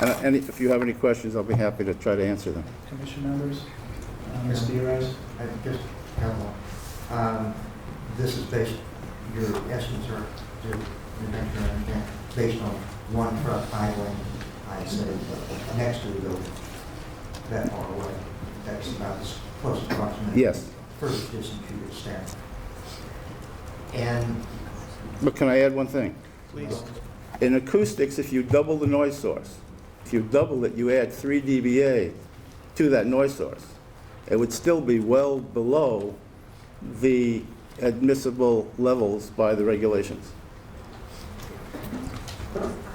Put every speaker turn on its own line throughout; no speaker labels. And and if you have any questions, I'll be happy to try to answer them.
Commission members, uh, Mr. Urias?
I just have one. Um, This is based, your estimates are, your your measure and everything, based on one truck idling, I say, next to the building, that far away. That's about as close approximate.
Yes.
First distance you could stand. And
But can I add one thing?
Please.
In acoustics, if you double the noise source, if you double it, you add 3 dBA to that noise source, it would still be well below the admissible levels by the regulations.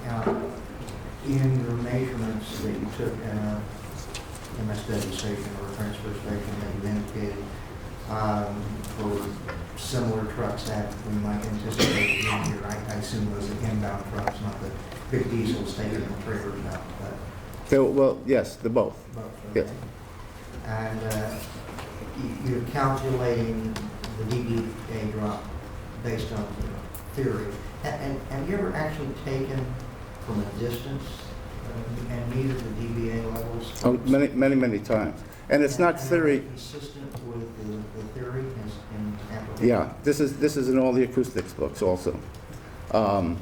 Now, in your measurements that you took in a MSW station or a transfer station that you indicated, um, for similar trucks that we might anticipate in here, I I assume those are inbound trucks, not the big diesels taking the trailers out, but
So, well, yes, the both.
both.
Yes.
And uh, you- you're calculating the DBA drop based on the theory. A- And have you ever actually taken from a distance uh, and measured the DBA levels?
Oh, Many, many, many times. And it's not
And- and
theory,
Consistent with the the theory is in application?
Yeah, this is, this is in all the acoustics books also. Um,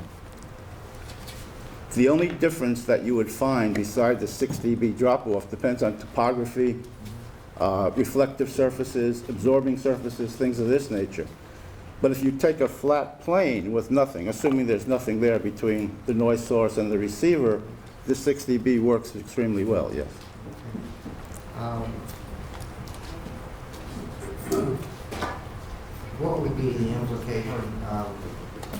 The only difference that you would find beside the 6 dB drop-off depends on topography, uh, reflective surfaces, absorbing surfaces, things of this nature. But if you take a flat plane with nothing, assuming there's nothing there between the noise source and the receiver, the 6 dB works extremely well, yes.
Um, What would be the implication of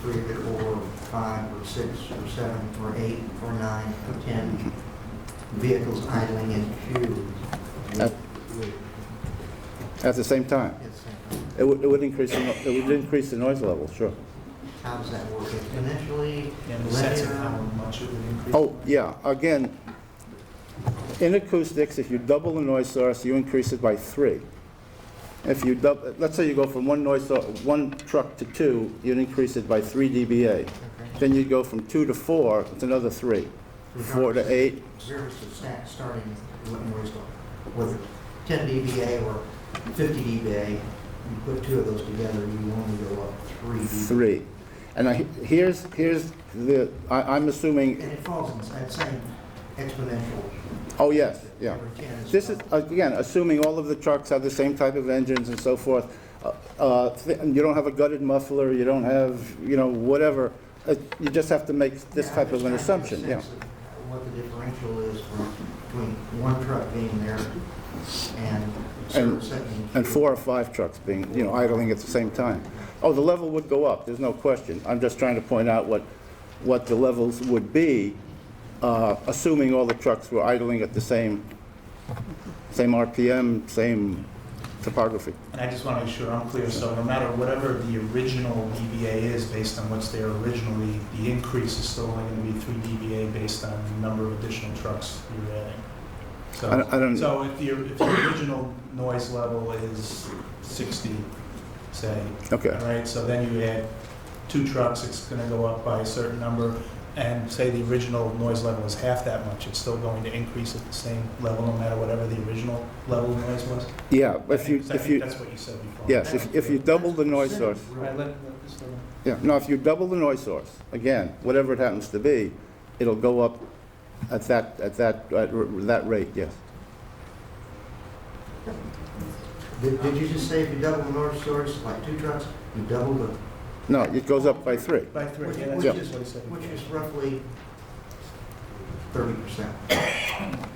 three or four, or five or six or seven or eight or nine or 10 vehicles idling in queue?
At- At the same time,
It's,
it would, it would increase, the no- it would increase the noise level, sure.
uh, How does that work exponentially?
And the sense of
linear?
how much it would increase?
Oh, yeah, again, in acoustics, if you double the noise source, you increase it by three. If you double, let's say you go from one noise, sor- one truck to two, you'd increase it by three dBA.
Okay.
Then you'd go from two to four, it's another three. Four to eight,
Service of sta- starting with noise level, whether 10 dBA or 50 dBA, you put two of those together, you only go up three dBA.
three. And I, here's, here's the, I, I'm assuming,
And it falls in that same exponential.
oh, yes, yeah.
Every 10
This is, again, assuming all of the trucks have the same type of engines and so forth. Uh, uh, th- and You don't have a gutted muffler, you don't have, you know, whatever. Uh, You just have to make this
Yeah,
type of an
I'm just trying to
assumption,
get
yeah.
a sense of What the differential is from- between one truck being there and
And-
service setting.
And four or five trucks being, you know, idling at the same time. Oh, the level would go up, there's no question. I'm just trying to point out what, what the levels would be, uh, assuming all the trucks were idling at the same, same RPM, same topography.
And I just want to make sure I'm clear, so no matter whatever the original DBA is, based on what's there originally, the increase is still only going to be three DBA based on the number of additional trucks you're adding.
I don't-
So,
I don't,
so if your, if your original noise level is 60, say,
okay.
all right, so then you add two trucks, it's going to go up by a certain number, and say the original noise level is half that much, it's still going to increase at the same level, no matter whatever the original level of noise was?
Yeah, if you,
Because I
if
think
you,
That's what you said before.
yes, if if you double the noise source,
All right, let- let this go.
yeah, no, if you double the noise source, again, whatever it happens to be, it'll go up at that, at that, at r- that rate, yes.
Did did you just say if you double the north source, like two trucks, you double the,
No, it goes up by three.
By three, yeah,
Yeah.
that's just what he said.
which is roughly 30%?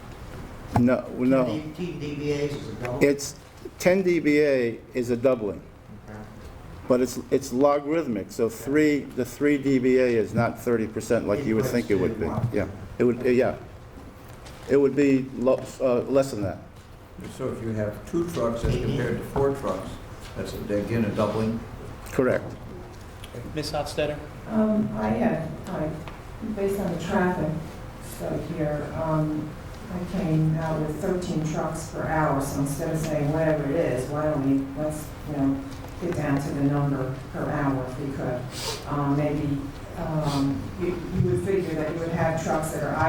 No, no,
10 dBAs is a double?
it's, 10 dBA is a doubling,
Okay.
but it's, it's logarithmic, so three, the three dBA is not 30% like you would think it would be. Yeah, it would, yeah. It would be lo- uh, less than that.
So if you have two trucks as compared to four trucks, that's again a doubling.
Correct.
Ms. Hofstadter?
Um, I had, I, based on the traffic study here, um, I came out with thirteen trucks per hour, so instead of saying whatever it is, why don't we, let's, you know, get down to the number per hour if we could. Um, maybe, um, you, you would figure that you would have trucks that are idle